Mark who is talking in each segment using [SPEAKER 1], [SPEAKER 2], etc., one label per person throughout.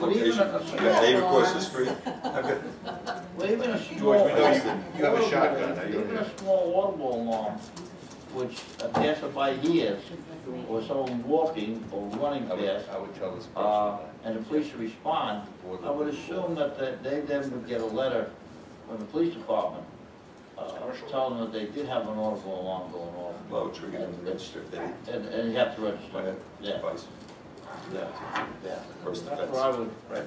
[SPEAKER 1] Well, even a-
[SPEAKER 2] Yeah, Dave across the street.
[SPEAKER 3] I've got-
[SPEAKER 1] well, even a small.
[SPEAKER 3] George, we know you, you have a shotgun, now you don't
[SPEAKER 1] Even
[SPEAKER 3] have.
[SPEAKER 1] a small audible alarm, which a passerby hears, or someone walking or running
[SPEAKER 3] I would,
[SPEAKER 1] past,
[SPEAKER 3] I would tell this person
[SPEAKER 1] uh,
[SPEAKER 3] that.
[SPEAKER 1] and the police respond, I would assume that, that they then would get a letter from the police department, uh, telling them that they did have an audible alarm going off,
[SPEAKER 2] Well, which we can register if they,
[SPEAKER 1] and, and you have to
[SPEAKER 2] my
[SPEAKER 1] register. Yeah,
[SPEAKER 2] advice,
[SPEAKER 1] yeah, yeah.
[SPEAKER 2] first
[SPEAKER 1] That's
[SPEAKER 2] offense.
[SPEAKER 1] where I would,
[SPEAKER 3] Right.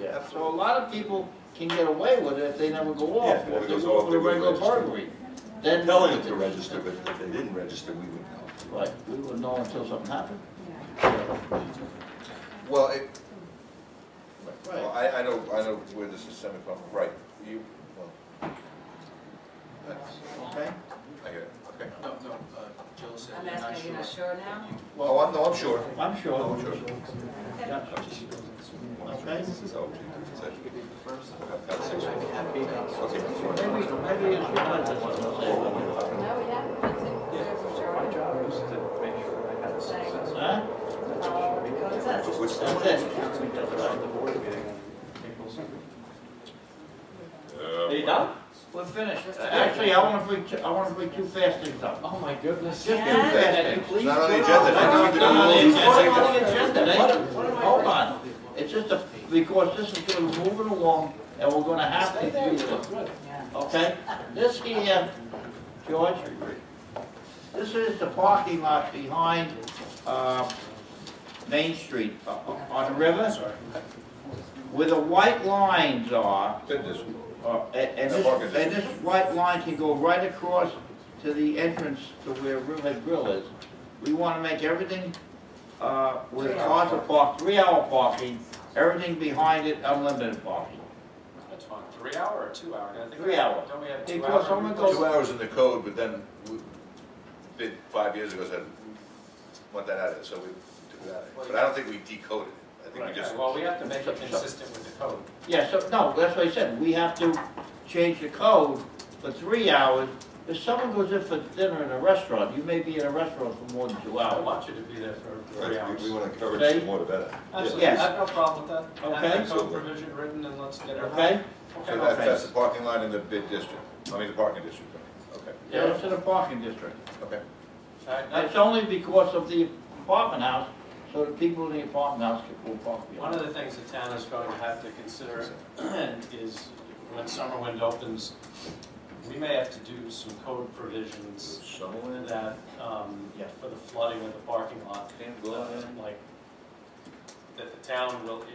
[SPEAKER 1] yeah, so a lot of people can get away with it if they never go off,
[SPEAKER 2] Yeah,
[SPEAKER 1] if
[SPEAKER 2] if it
[SPEAKER 1] they
[SPEAKER 2] goes
[SPEAKER 1] go
[SPEAKER 2] off,
[SPEAKER 1] for
[SPEAKER 2] they
[SPEAKER 1] a
[SPEAKER 2] wouldn't
[SPEAKER 1] regular
[SPEAKER 2] register.
[SPEAKER 1] burglary. Then.
[SPEAKER 2] Telling them to register, but if they didn't register, we would know.
[SPEAKER 1] Right, we wouldn't know until something happened.
[SPEAKER 3] Well, it, well,
[SPEAKER 1] Right,
[SPEAKER 3] I, I know, I know where this is stemming from, right, you, well. That's,
[SPEAKER 1] okay?
[SPEAKER 3] I get it, okay.
[SPEAKER 4] No, no, uh, Joe said
[SPEAKER 5] I'm
[SPEAKER 4] they're not
[SPEAKER 5] asking,
[SPEAKER 4] sure.
[SPEAKER 5] you're not sure now?
[SPEAKER 3] Oh, I'm, no, I'm sure.
[SPEAKER 1] I'm
[SPEAKER 3] Oh,
[SPEAKER 1] sure.
[SPEAKER 3] sure.
[SPEAKER 1] Yeah.
[SPEAKER 2] I'm just-
[SPEAKER 1] Okay.
[SPEAKER 2] So, we'll have conversation. Okay.
[SPEAKER 1] Maybe, maybe it's redundant, what I'm saying.
[SPEAKER 5] No, we haven't, that's it, Uh,
[SPEAKER 2] Yeah.
[SPEAKER 5] There's a short-
[SPEAKER 6] My job is to make sure I have success.
[SPEAKER 1] Huh?
[SPEAKER 5] Oh, it says-
[SPEAKER 2] But What's
[SPEAKER 1] That's
[SPEAKER 2] that?
[SPEAKER 1] it.
[SPEAKER 6] Counseling does it at the board meeting on April 7th.
[SPEAKER 2] Uh,
[SPEAKER 6] done?
[SPEAKER 1] We're finished. Actually, I wanna bring, two- I wanna bring two fast things up.
[SPEAKER 6] Oh, my goodness.
[SPEAKER 1] Just two
[SPEAKER 5] Yeah.
[SPEAKER 1] fast
[SPEAKER 6] Can you
[SPEAKER 1] things.
[SPEAKER 6] please?
[SPEAKER 3] It's not on the
[SPEAKER 6] go
[SPEAKER 3] agenda,
[SPEAKER 6] on?
[SPEAKER 3] I know.
[SPEAKER 1] Put it on the agenda. They- Hold on, it's just a, because this is gonna move it along, and we're gonna have to do this, okay? This here, George,
[SPEAKER 2] I agree.
[SPEAKER 1] this is the parking lot behind, uh, Main Street, uh, on the river, where the white lines are,
[SPEAKER 3] Did this.
[SPEAKER 1] uh, and and
[SPEAKER 3] The
[SPEAKER 1] this,
[SPEAKER 3] parking
[SPEAKER 1] and this right line can go right across to the entrance to where Riverhead Grill is. We wanna make everything, uh, where cars are parked, three-hour parking, everything behind it unlimited parking.
[SPEAKER 4] That's fine, three hour or two hour? I think-
[SPEAKER 1] Three hour.
[SPEAKER 4] Don't we have two
[SPEAKER 1] Because I'm gonna
[SPEAKER 4] hour?
[SPEAKER 1] go,
[SPEAKER 3] Two hours in the code, but then, we did, five years ago, said, want that out of it, so we took it out of it. But I don't think we decoded it, I think we just,
[SPEAKER 4] Okay, Well, we have to make it consistent with the code.
[SPEAKER 1] yeah, so, no, that's what I said, we have to change the code for three hours. If someone goes in for dinner in a restaurant, you may be in a restaurant for more than two
[SPEAKER 4] I
[SPEAKER 1] hours.
[SPEAKER 4] want you to be there for three
[SPEAKER 2] Right, We
[SPEAKER 4] hours.
[SPEAKER 2] want to encourage
[SPEAKER 1] Okay.
[SPEAKER 2] the more the better.
[SPEAKER 4] Absolutely, I
[SPEAKER 1] Yes.
[SPEAKER 4] have no problem with that. Have
[SPEAKER 1] Okay.
[SPEAKER 4] the code provision written and let's get it.
[SPEAKER 1] Okay?
[SPEAKER 3] so that's, that's the parking line in the bid district, I mean, the parking district, okay,
[SPEAKER 1] Yeah, it's in the parking district.
[SPEAKER 3] okay.
[SPEAKER 4] All right,
[SPEAKER 1] It's
[SPEAKER 4] now,
[SPEAKER 1] only because of the apartment house, so the people in the apartment house can pull park
[SPEAKER 4] one
[SPEAKER 1] behind.
[SPEAKER 4] of the things the town is going to have to consider is when Summerwind opens, we may have to do some code provisions
[SPEAKER 3] Someone
[SPEAKER 4] that, um,
[SPEAKER 1] Yeah.
[SPEAKER 4] for the flooding of the parking lot.
[SPEAKER 3] can't
[SPEAKER 4] uh, like, that the town will, i-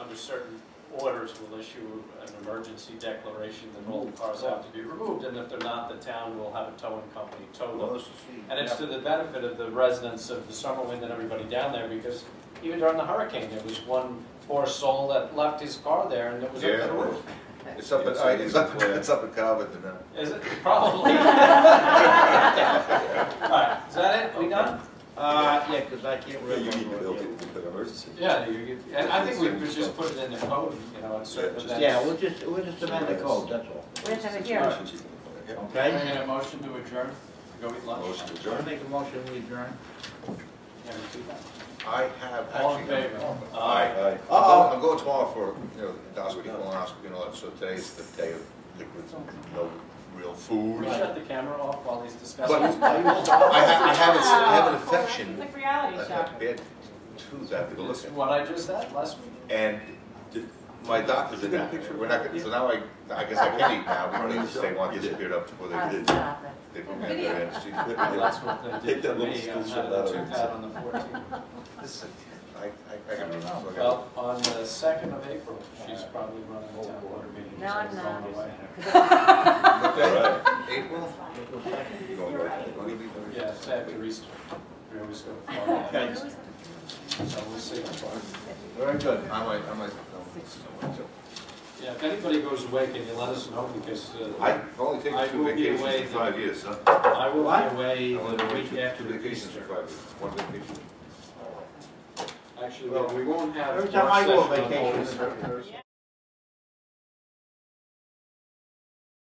[SPEAKER 4] under certain orders, will issue an emergency declaration that all the cars have to be removed, and if they're not, the town will have a towing company tow them. And it's to the benefit of the residents of the Summerwind and everybody down there, because even during the hurricane, there was one poor soul that left his car there and it was up to the roof.
[SPEAKER 3] It's up, at- all right, it's up, it's up at Calvert, and, uh,
[SPEAKER 4] Is it, probably? All right, is that it, we done?
[SPEAKER 1] Uh, yeah, because I can't
[SPEAKER 2] Yeah,
[SPEAKER 1] remember.
[SPEAKER 2] You need to build it with an emergency.
[SPEAKER 4] Yeah, you, you- and I think we could just put it in the code, you know, and certain
[SPEAKER 2] Yeah,
[SPEAKER 4] events.
[SPEAKER 1] Yeah, we'll just, we'll just amend the code, that's all,
[SPEAKER 5] Wait a minute, here.
[SPEAKER 2] Yeah.
[SPEAKER 4] Can
[SPEAKER 1] okay?
[SPEAKER 4] I get a motion to adjourn, to go eat lunch?
[SPEAKER 2] Motion to
[SPEAKER 1] So I
[SPEAKER 2] adjourn.
[SPEAKER 1] make a motion, we adjourn.
[SPEAKER 4] Yeah, we do that.
[SPEAKER 3] I have actually.
[SPEAKER 4] All in favor?
[SPEAKER 3] Aye.
[SPEAKER 2] Aye.
[SPEAKER 3] I'll go- I'll go tomorrow for, you know, endoscopy, colonoscopy, and all that, so today's the day of liquids, no real
[SPEAKER 4] Can
[SPEAKER 3] food.
[SPEAKER 4] we shut the camera off while he's discussing?
[SPEAKER 3] But- I have, I have, a s- I have an affection,
[SPEAKER 5] It's like
[SPEAKER 3] a
[SPEAKER 5] reality
[SPEAKER 3] a
[SPEAKER 5] shock.
[SPEAKER 3] bad tooth that to look at.
[SPEAKER 4] What I just said last week?
[SPEAKER 3] And th- my doctor did that, we're not, gonna- so now I, I guess I can eat now, because they want this beard up before they
[SPEAKER 5] Oh,
[SPEAKER 3] did.
[SPEAKER 5] stop it.
[SPEAKER 3] They put me under anesthesia.
[SPEAKER 4] Well, That's what they
[SPEAKER 2] Take
[SPEAKER 4] did
[SPEAKER 2] that
[SPEAKER 4] to
[SPEAKER 2] little
[SPEAKER 4] me,
[SPEAKER 2] school
[SPEAKER 4] I
[SPEAKER 2] shut
[SPEAKER 4] had
[SPEAKER 2] out
[SPEAKER 4] a
[SPEAKER 2] of it.
[SPEAKER 4] tooth out on the fourteenth.
[SPEAKER 3] Listen, I, I, I gotta look at
[SPEAKER 4] Well, on the second of April, she's probably running a town board meeting.
[SPEAKER 5] No, I'm not.
[SPEAKER 2] All right.
[SPEAKER 3] April? You going right? Going to be-
[SPEAKER 4] Yeah, it's after Easter, we always go to Florida,
[SPEAKER 1] Okay,
[SPEAKER 4] so we'll see.
[SPEAKER 3] Very good. I might, I might, I might.
[SPEAKER 4] Yeah, if anybody goes away, can you let us know, because uh,
[SPEAKER 3] I've only taken
[SPEAKER 4] I
[SPEAKER 3] two
[SPEAKER 4] will be
[SPEAKER 3] vacations
[SPEAKER 4] away
[SPEAKER 3] in five
[SPEAKER 4] the-
[SPEAKER 3] years, huh?
[SPEAKER 4] I will
[SPEAKER 1] What?
[SPEAKER 4] be away
[SPEAKER 3] I've only
[SPEAKER 4] the
[SPEAKER 3] taken
[SPEAKER 4] week
[SPEAKER 3] two-
[SPEAKER 4] after
[SPEAKER 3] Two vacations in
[SPEAKER 4] Easter.
[SPEAKER 3] five years, one vacation.
[SPEAKER 4] Actually,
[SPEAKER 1] Well,
[SPEAKER 4] we won't have.
[SPEAKER 1] every time I go on vacation,
[SPEAKER 5] Yeah.